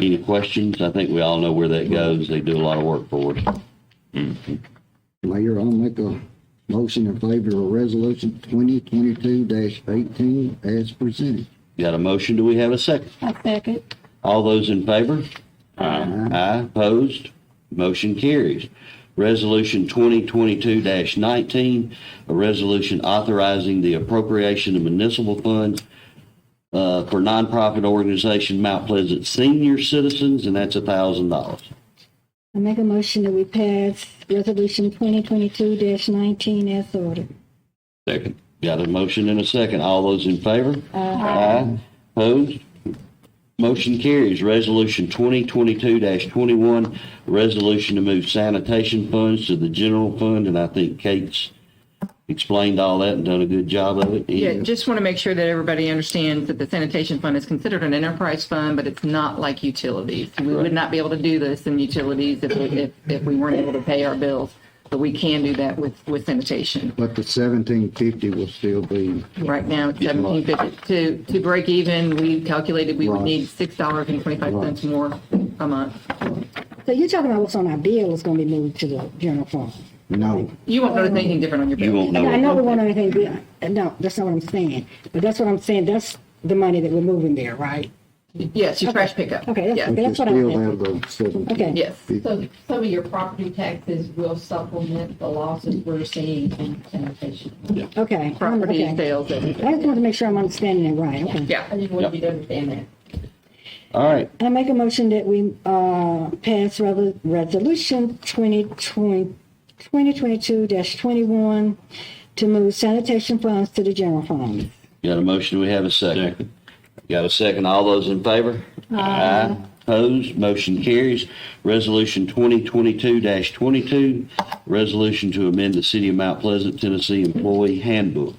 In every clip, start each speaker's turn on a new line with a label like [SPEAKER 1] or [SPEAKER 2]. [SPEAKER 1] Any questions? I think we all know where that goes. They do a lot of work for us.
[SPEAKER 2] Mayor, I'll make a motion in favor of resolution twenty twenty-two eighteen as presented.
[SPEAKER 1] Got a motion? Do we have a second?
[SPEAKER 3] I second.
[SPEAKER 1] All those in favor? Aye. Aye, opposed? Motion carries. Resolution 2022-19, a resolution authorizing the appropriation of municipal funds uh, for nonprofit organization Mount Pleasant Senior Citizens, and that's $1,000.
[SPEAKER 3] I make a motion that we pass resolution twenty twenty-two nineteen as ordered.
[SPEAKER 1] Second. Got a motion and a second. All those in favor? Aye. Opposed? Motion carries. Resolution 2022-21, resolution to move sanitation funds to the general fund, and I think Kate's explained all that and done a good job of it.
[SPEAKER 4] Yeah, just want to make sure that everybody understands that the sanitation fund is considered an enterprise fund, but it's not like utilities. We would not be able to do this in utilities if, if, if we weren't able to pay our bills, but we can do that with, with sanitation.
[SPEAKER 2] But the seventeen fifty will still be,
[SPEAKER 4] Right now, it's seventeen fifty. To, to break even, we calculated we would need six dollars and twenty-five cents more a month.
[SPEAKER 3] So you're talking about what's on our bill is gonna be moved to the general fund?
[SPEAKER 2] no,
[SPEAKER 4] You won't notice anything different on your bill.
[SPEAKER 1] You won't
[SPEAKER 3] I know
[SPEAKER 1] know.
[SPEAKER 3] we want anything beyond, uh, no, that's not what I'm saying, but that's what I'm saying, that's the money that we're moving there, right?
[SPEAKER 4] Yes, your trash pickup.
[SPEAKER 3] Okay, that's-
[SPEAKER 4] Yes.
[SPEAKER 2] but you
[SPEAKER 3] what I
[SPEAKER 2] still have
[SPEAKER 3] meant.
[SPEAKER 2] the seventeen.
[SPEAKER 3] Okay.
[SPEAKER 4] Yes.
[SPEAKER 5] So some of your property taxes will supplement the losses we're seeing in sanitation.
[SPEAKER 3] Okay. I'm-
[SPEAKER 4] Property
[SPEAKER 3] okay. I
[SPEAKER 4] sales,
[SPEAKER 3] just
[SPEAKER 4] everything.
[SPEAKER 3] wanted to make sure I'm understanding it right, okay.
[SPEAKER 4] Yeah.
[SPEAKER 5] I just wanted you to understand that.
[SPEAKER 1] All right.
[SPEAKER 3] I make a motion that we uh, pass revol- Resolution 2020 2022-21 to move sanitation funds to the general fund.
[SPEAKER 1] Got a motion, we have a second. Got a second, all those in favor? Aye. Opposed, motion carries. Resolution 2022-22, resolution to amend the City of Mount Pleasant, Tennessee Employee Handbook.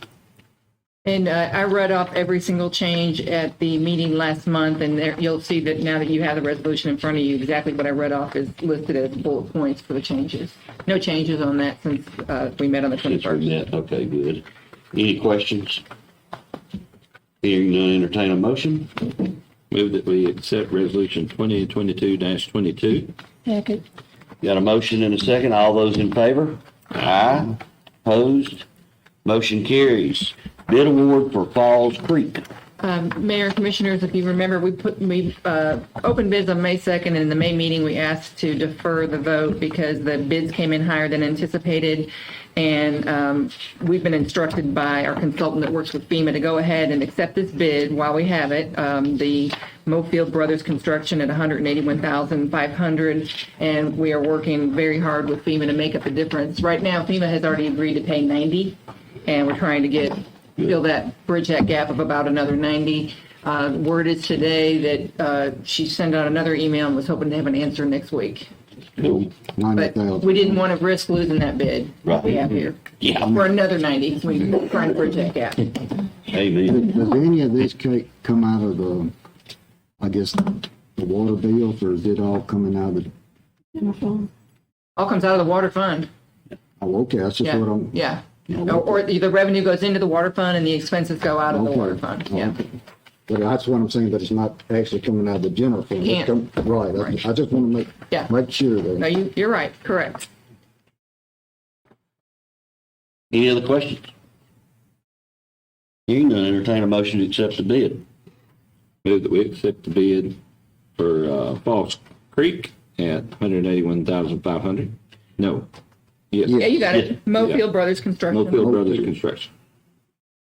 [SPEAKER 4] And uh, I read off every single change at the meeting last month, and there, you'll see that now that you have the resolution in front of you, exactly what I read off is listed as bullet points for the changes. No changes on that since uh, we met on the
[SPEAKER 1] Since we
[SPEAKER 4] 21st.
[SPEAKER 1] met, okay, good. Any questions? Hearing none, entertain a motion.
[SPEAKER 6] Move that we accept resolution 2022-22.
[SPEAKER 3] Second.
[SPEAKER 1] Got a motion and a second, all those in favor? Aye. Opposed, motion carries. Bid award for Falls Creek.
[SPEAKER 4] Um, Mayor and Commissioners, if you remember, we put, we uh, opened bids on May 2nd, and in the May meeting, we asked to defer the vote because the bids came in higher than anticipated. And um, we've been instructed by our consultant that works with FEMA to go ahead and accept this bid while we have it. Um, The Mofield Brothers Construction at $181,500, and we are working very hard with FEMA to make up the difference. Right now, FEMA has already agreed to pay 90, and we're trying to get fill that, bridge that gap of about another 90. Uh, Word is today that uh, she sent out another email and was hoping to have an answer next week.
[SPEAKER 2] ninety
[SPEAKER 4] But
[SPEAKER 2] thousand.
[SPEAKER 4] we didn't want to risk losing that bid that we
[SPEAKER 1] Right.
[SPEAKER 4] have here.
[SPEAKER 1] Yeah.
[SPEAKER 4] For another 90, we're trying to bridge that gap.
[SPEAKER 1] Amen.
[SPEAKER 2] Does any of this cake come out of the, I guess, the water bills, or is it all coming out of the,
[SPEAKER 4] All comes out of the water fund.
[SPEAKER 2] oh, okay, that's just
[SPEAKER 4] Yeah,
[SPEAKER 2] what I'm.
[SPEAKER 4] yeah. Or or the revenue goes into the water fund and the expenses go out of the
[SPEAKER 2] Okay.
[SPEAKER 4] water fund, yeah.
[SPEAKER 2] Okay. But that's what I'm saying, but it's not actually coming out of the general fund. It's
[SPEAKER 4] Can't.
[SPEAKER 2] come- Right, I-
[SPEAKER 4] Right.
[SPEAKER 2] I just want to
[SPEAKER 4] Yeah.
[SPEAKER 2] make, make sure that.
[SPEAKER 4] No, you, you're right, correct.
[SPEAKER 1] Any other questions? Hearing none, entertain a motion to accept the bid.
[SPEAKER 6] Move that we accept the bid for uh, Falls Creek at 181,500. No.
[SPEAKER 4] Yeah,
[SPEAKER 6] Yes.
[SPEAKER 4] you got it. Mofield Brothers Construction.
[SPEAKER 6] Mofield Brothers Construction.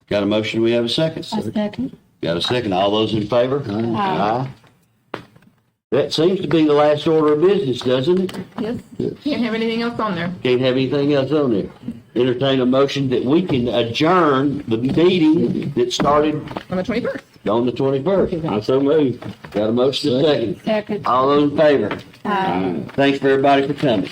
[SPEAKER 1] Got a motion, we have a second.
[SPEAKER 3] second.
[SPEAKER 1] Got a second, all those in favor? Aye. That seems to be the last order of business, doesn't it?
[SPEAKER 4] Yes, can't have anything else on there.
[SPEAKER 1] Can't have anything else on there. Entertain a motion that we can adjourn the meeting that started
[SPEAKER 4] On the 21st.
[SPEAKER 1] on the twenty-first.
[SPEAKER 6] I so move.
[SPEAKER 1] Got a motion, a second.
[SPEAKER 3] Second.
[SPEAKER 1] All those in favor? Thanks for everybody for coming.